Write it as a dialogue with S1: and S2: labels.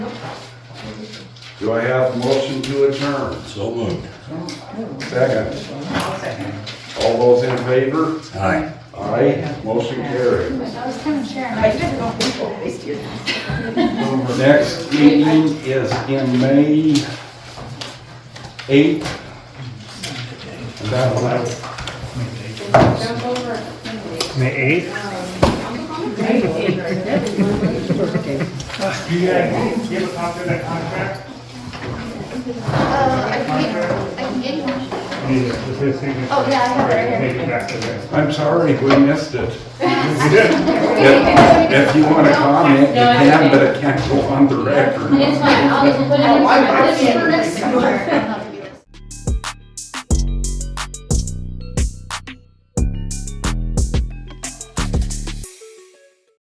S1: Do I have a motion to adjourn?
S2: So moved.
S1: Second. All those in favor?
S2: Aye.
S1: Aye, motion carried.
S3: I was kind of sharing.
S4: I didn't know people always do that.
S1: Next meeting is in May eighth. Is that right?
S5: May eighth? Do you guys give a copy of that contract?
S3: Uh, I can, I can get one.
S5: Yeah, just his signature.
S3: Oh, yeah, I have it right here.
S5: Take it back to them.
S1: I'm sorry, we missed it. If if you want to comment, you can, but it can't go on the record.
S6: It's fine, I'll just put it in for next time.